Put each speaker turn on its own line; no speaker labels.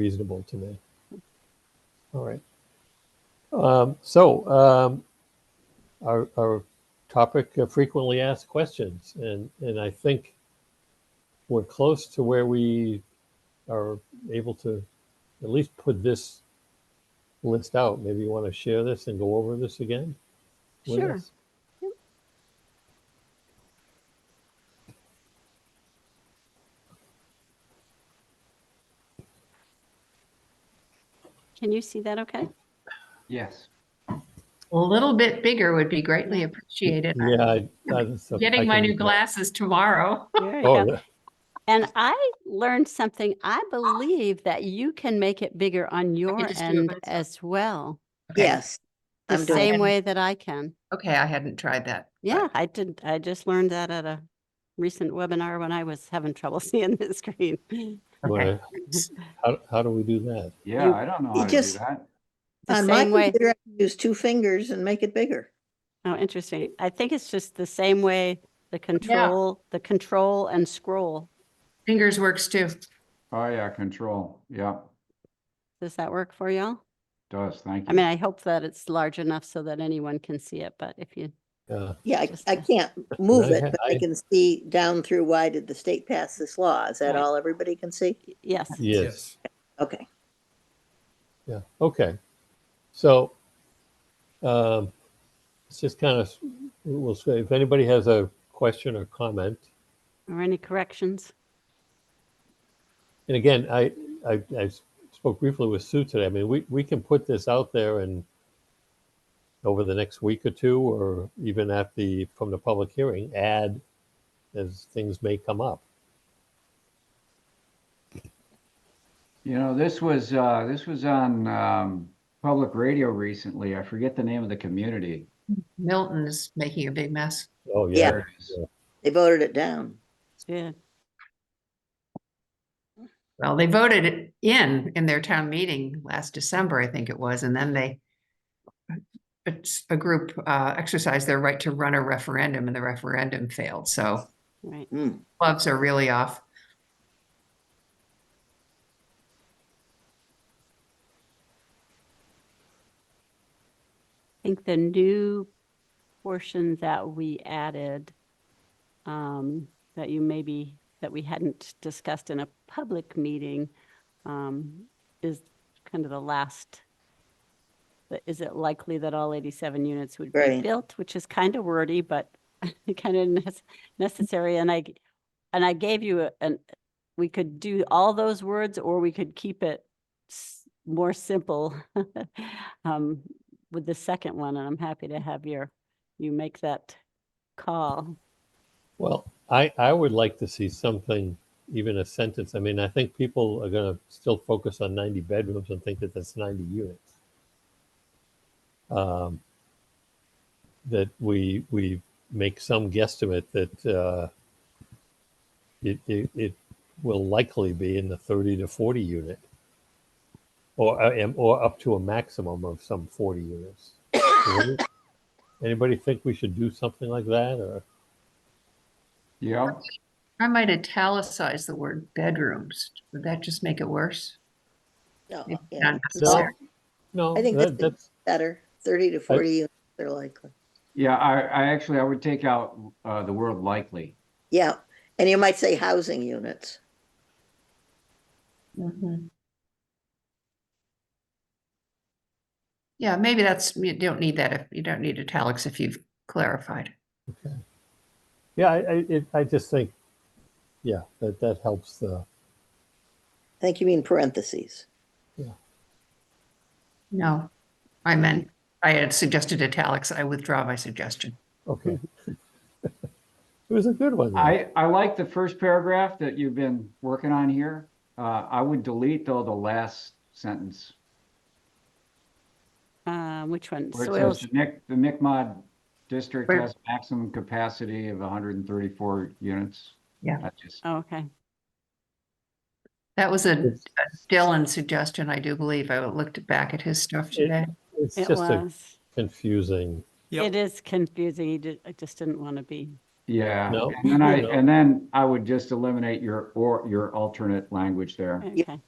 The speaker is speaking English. reasonable to me. All right. Um, so, um, our, our topic of frequently asked questions, and, and I think we're close to where we are able to at least put this list out. Maybe you want to share this and go over this again? with
Sure.
us?
Yep. Can you see that okay?
Yes.
A little bit bigger would be greately appreciated.
Yeah. I- I- that's- I
Getting my
can-
new glasses tomorrow.
There you
Oh,
go.
yeah.
And I learned something. I believe that you can make it bigger on your
just do it
end
myself.
as well,
Okay.
Yes.
the
I'm doing
same
it.
way that I can.
Okay, I hadn't tried that. but
Yeah, I did. I just learned that at a recent webinar when I was having trouble seeing the screen.
Okay.
Well, How, how do we do that?
Yeah,
You-
I don't know
you
how to do
just-
that.
The
On my
same way.
computer, I Use two fingers and make it bigger.
Oh, interesting. I think it's just the same way the control, the control and scroll.
Fingers works too.
Oh, yeah, control. Yeah,
Does that work for y'all?
does. Thank
I
you.
mean, I hope that it's large enough so that anyone can see it, but if you,
Uh,
Yeah, I,
Just
I
the-
can't move
I-
it, but I
I-
can see down through why did the state pass this law? Is that
Right.
all everybody can see?
y- yes.
yes.
Okay.
Yeah, okay. So, um, it's just kind of, we'll say, if anybody has a question or comment,
Or any corrections?
and again, I, I, I spoke briefly with Sue today. I mean, we, we can put this out there and over the next week or two, or even at the, from the public hearing, add as things may come up.
You know, this was, uh, this was on, um, public radio recently. I forget the name of the community.
Milton is making a big mess.
Oh,
Yeah.
yeah.
There it is.
They voted it down.
Yeah.
Well, they voted it in, in their town meeting last December, I think it was, and then they it's a group uh, exercised their right to run a referendum and the referendum failed. So
Right.
Hmm.
gloves are really off.
I think the new portion that we added, um, that you maybe, that we hadn't discussed in a public meeting, um, is kind of the last, the- is it likely that all 87 units would be
Right.
built, which is kind of wordy, but kind of necessary. And I, g- and I gave you a- an, we could do all those words or we could keep it s- more simple um, with the second one. And I'm happy to have your, you make that call.
Well, I, I would like to see something, even a sentence. I mean, I think people are gonna still focus on ninety bedrooms and think that that's ninety units. Um, That we, we make some guesstimate that, uh, it, it, it will likely be in the thirty to forty unit. Or, uh, am- or up to a maximum of some forty units. Anybody think we should do something like that or?
Yeah,
I might italicize the word bedrooms. Would that just make it worse?
No,
It's
yeah,
not
it's
No,
necessary.
no,
I think
that,
that's the-
that's,
better. Thirty to forty units are likely.
yeah, I, I actually, I would take out, uh, the word likely.
Yeah, and you might say housing units.
Mhm. Yeah, maybe that's, you don't need that if, you don't need italics if you've clarified.
Yeah, I, I, it, I just think, yeah, that, that helps the,
I think you mean parentheses.
No, I meant, I had suggested italics. I withdraw my suggestion.
okay. It was a good one. though.
I, I like the first paragraph that you've been working on here. Uh, I would delete though the last sentence.
Uh, which one?
Where it says
Soils,
the Mic, the Mi'kmaq district
Where-
has maximum capacity of hundred and thirty-four units.
Yeah.
I just,
oh, okay.
That was a
It's-
Dylan suggestion, I do believe. I looked back at his stuff today.
It's
It
just a
was.
confusing,
It is confusing. You did- I just didn't want to be.
yeah,
No,
and then I,
no.
and then I would just eliminate your, or your alternate language there.
Okay.